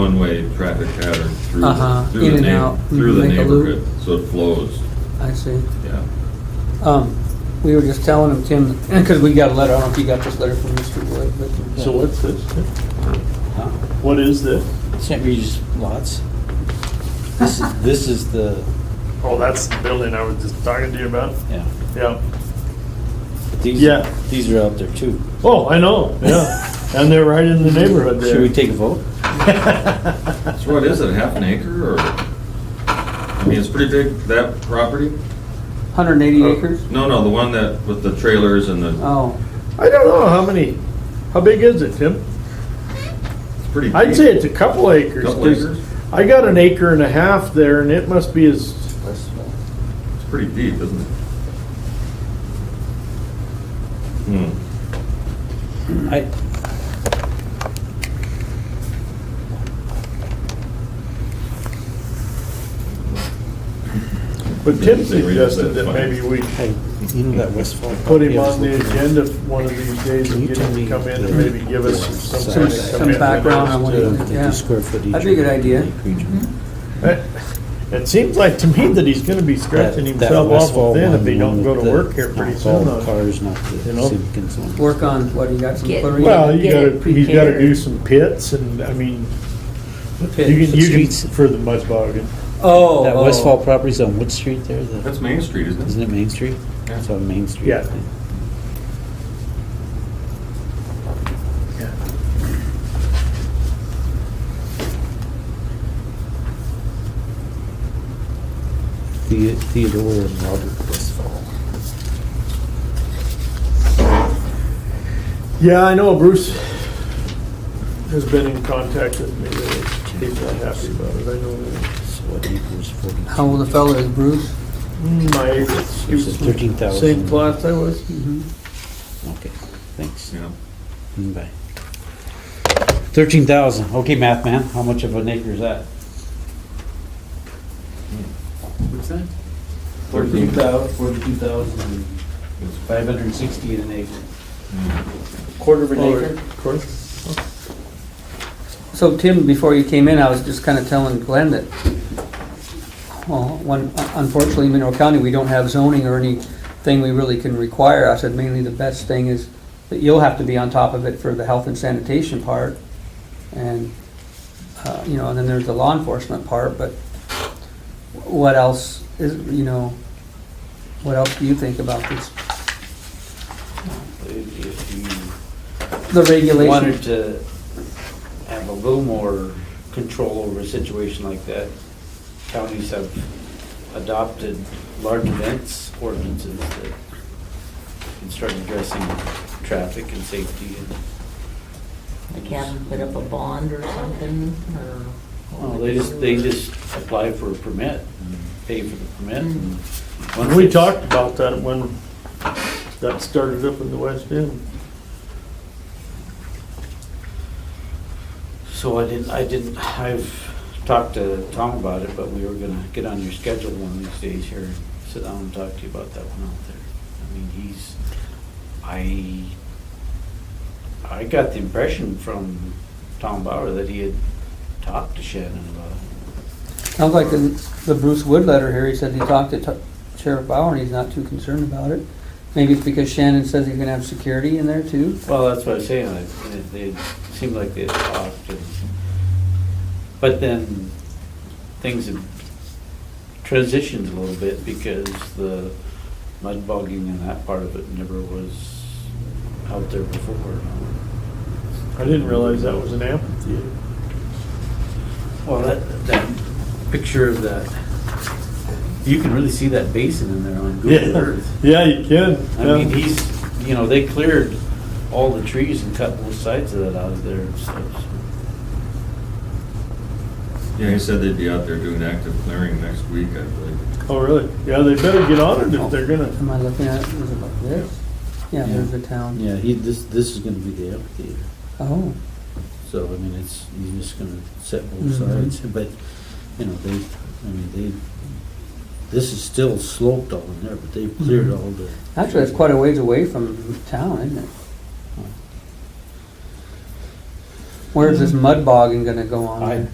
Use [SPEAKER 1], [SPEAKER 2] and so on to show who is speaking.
[SPEAKER 1] one-way traffic pattern through,
[SPEAKER 2] Uh-huh,
[SPEAKER 1] the- through
[SPEAKER 2] in
[SPEAKER 1] the
[SPEAKER 2] and
[SPEAKER 1] neigh-
[SPEAKER 2] out,
[SPEAKER 1] through the
[SPEAKER 2] make a loop.
[SPEAKER 1] neighborhood, so it flows,
[SPEAKER 2] I see.
[SPEAKER 1] yeah.
[SPEAKER 2] Um, we were just telling him, Tim, because we got a letter, I don't know if you got this letter from Mr. Wood, but. uh,
[SPEAKER 3] So what's this?
[SPEAKER 2] Huh?
[SPEAKER 3] What is this?
[SPEAKER 4] St. Regis lots. This is, this is the,
[SPEAKER 3] Oh, that's the building I was just talking to you about.
[SPEAKER 4] yeah.
[SPEAKER 3] Yeah.
[SPEAKER 4] These-
[SPEAKER 3] Yeah.
[SPEAKER 4] These are out there too.
[SPEAKER 3] Oh, I know, yeah. And they're right in the neighborhood there.
[SPEAKER 4] Should we take a vote?
[SPEAKER 1] So what is it, half an acre, or, I mean, it's pretty big, that property?
[SPEAKER 2] Hundred and eighty acres?
[SPEAKER 1] No, no, the one that, with the trailers and the,
[SPEAKER 2] Oh,
[SPEAKER 3] I don't know how many, how big is it, Tim?
[SPEAKER 1] it's pretty deep.
[SPEAKER 3] I'd say it's a couple acres.
[SPEAKER 1] Couple
[SPEAKER 3] 'cause
[SPEAKER 1] acres?
[SPEAKER 3] I got an acre and a half there and it must be as,
[SPEAKER 1] It's pretty deep, isn't it? Hmm,
[SPEAKER 4] I,
[SPEAKER 3] but Tim
[SPEAKER 1] Say we just
[SPEAKER 3] suggested
[SPEAKER 1] said
[SPEAKER 3] that
[SPEAKER 1] fine.
[SPEAKER 3] maybe we
[SPEAKER 4] hey, you know that Westfall.
[SPEAKER 3] put him
[SPEAKER 4] property I was
[SPEAKER 3] on the
[SPEAKER 4] looking at?
[SPEAKER 3] agenda one of these days
[SPEAKER 4] Can
[SPEAKER 3] and
[SPEAKER 4] you
[SPEAKER 3] get
[SPEAKER 4] tell
[SPEAKER 3] him
[SPEAKER 4] me
[SPEAKER 3] to come in
[SPEAKER 4] the-
[SPEAKER 3] and maybe give us some
[SPEAKER 4] Some-
[SPEAKER 3] kind of
[SPEAKER 4] some
[SPEAKER 3] commitment
[SPEAKER 2] background on
[SPEAKER 3] as
[SPEAKER 2] what
[SPEAKER 3] to-
[SPEAKER 2] he
[SPEAKER 4] The- the
[SPEAKER 2] Yeah.
[SPEAKER 4] square footage
[SPEAKER 2] That'd be a good
[SPEAKER 4] of
[SPEAKER 2] idea. Mm-hmm.
[SPEAKER 4] the acreage.
[SPEAKER 3] It seems like to me that he's gonna be scratching
[SPEAKER 4] That- that
[SPEAKER 3] himself
[SPEAKER 4] Westfall
[SPEAKER 3] awful thin if
[SPEAKER 4] one,
[SPEAKER 3] he don't
[SPEAKER 4] the
[SPEAKER 3] go
[SPEAKER 4] one
[SPEAKER 3] to
[SPEAKER 4] with
[SPEAKER 3] work
[SPEAKER 4] the-
[SPEAKER 3] here pretty
[SPEAKER 4] not all
[SPEAKER 3] soon.
[SPEAKER 4] the
[SPEAKER 3] on-
[SPEAKER 4] Cars, not
[SPEAKER 3] you
[SPEAKER 4] the
[SPEAKER 3] know?
[SPEAKER 4] citizens ones.
[SPEAKER 2] work on, what, you got some
[SPEAKER 5] Get-
[SPEAKER 2] chlorine?
[SPEAKER 3] Well, you
[SPEAKER 5] Get
[SPEAKER 3] gotta,
[SPEAKER 5] it
[SPEAKER 3] he's gotta do
[SPEAKER 5] prepared.
[SPEAKER 3] some pits and, I mean, you
[SPEAKER 2] Pits.
[SPEAKER 3] can, you can,
[SPEAKER 4] Streets.
[SPEAKER 3] for the mud bogging.
[SPEAKER 2] Oh.
[SPEAKER 4] That
[SPEAKER 2] oh.
[SPEAKER 4] Westfall property's on Wood Street there, the-
[SPEAKER 1] that's Main Street, isn't it?
[SPEAKER 4] isn't it Main Street?
[SPEAKER 1] Yeah.
[SPEAKER 4] It's on Main Street. I
[SPEAKER 3] Yeah.
[SPEAKER 4] think. The- Theodore and Robert Westfall.
[SPEAKER 3] Yeah, I know Bruce has been in contact with me, that he's not happy about it, I know that.
[SPEAKER 4] So what equals forty?
[SPEAKER 2] oh. How old the fella is Bruce?
[SPEAKER 3] My, he
[SPEAKER 4] It's
[SPEAKER 3] was
[SPEAKER 4] a thirteen
[SPEAKER 3] from
[SPEAKER 4] thousand.
[SPEAKER 3] same class I was.
[SPEAKER 4] Okay, thanks.
[SPEAKER 1] Yeah.
[SPEAKER 4] Mm, Bye. Thirteen thousand. Okay, math man, how much of an acre is that?
[SPEAKER 6] What's that?
[SPEAKER 1] Thirteen.
[SPEAKER 4] thousand, forty-two thousand, five hundred and sixty an acre.
[SPEAKER 1] Hmm.
[SPEAKER 4] Quarter of an acre?
[SPEAKER 2] So Tim, before you came in, I was just kind of telling Glenn that, well, one, unfortunately, in Mineral County, we don't have zoning or anything we really can require. I said mainly the best thing is that you'll have to be on top of it for the health and sanitation part. And, uh, you know, and then there's the law enforcement part, but what else is, you know, what else do you think about this?
[SPEAKER 4] If
[SPEAKER 2] The
[SPEAKER 4] you
[SPEAKER 2] regulation,
[SPEAKER 4] wanted to have a little more control over a situation like that, counties have adopted large events ordinances that can start addressing traffic and safety and
[SPEAKER 5] Like have them put up a bond or something, or? what
[SPEAKER 4] Well,
[SPEAKER 5] would
[SPEAKER 4] Oh, they
[SPEAKER 5] you
[SPEAKER 4] just,
[SPEAKER 5] do?
[SPEAKER 4] they just apply for a permit, and pay for the permit. and once
[SPEAKER 3] And Mm-hmm. we
[SPEAKER 4] it's-
[SPEAKER 3] talked about that when that started up in the West End.
[SPEAKER 4] So I didn't, I didn't, I've talked to Tom about it, but we were gonna get on your schedule one of these days here, and sit down and talk to you about that one out there. I mean, he's, I, I got the impression from Tom Bauer that he had talked to Shannon about it.
[SPEAKER 2] sounds like the the Bruce Wood letter here, he said he talked to T- Sheriff Bauer and he's not too concerned about it. Maybe it's because Shannon says he's gonna have security in there too.
[SPEAKER 4] Well, that's what I'm saying, I- they, they seemed like they had talked, and, but then things have transitioned a little bit because the mud bogging and that part of it never was out there before.
[SPEAKER 3] I didn't realize that was an amphitheater.
[SPEAKER 4] Well, that, that picture of that, you can really see that basin in there on Google
[SPEAKER 3] Yeah,
[SPEAKER 4] Earth.
[SPEAKER 3] yeah, you can.
[SPEAKER 4] I mean, he's, you know, they cleared all the trees and cut both sides of that out of there and stuff, so.
[SPEAKER 1] Yeah, he said they'd be out there doing active clearing next week, I believe.
[SPEAKER 3] Oh, really? Yeah, they better get on it if they're gonna.
[SPEAKER 2] Am I looking at, it? is it like this? Yeah,
[SPEAKER 4] Yeah.
[SPEAKER 2] there's the town.
[SPEAKER 4] Yeah, he, this, this is gonna be the amphitheater,
[SPEAKER 2] Oh,
[SPEAKER 4] so, I mean, it's, you're just gonna set both
[SPEAKER 2] Mhm.
[SPEAKER 4] sides, but, you know, they, I mean, they, this is still sloped all in there, but they've cleared
[SPEAKER 2] Mhm.
[SPEAKER 4] all the.
[SPEAKER 2] actually, it's quite a ways away from town, isn't it? Where's this mud bogging gonna go on?
[SPEAKER 4] Hmm. I-
[SPEAKER 2] then?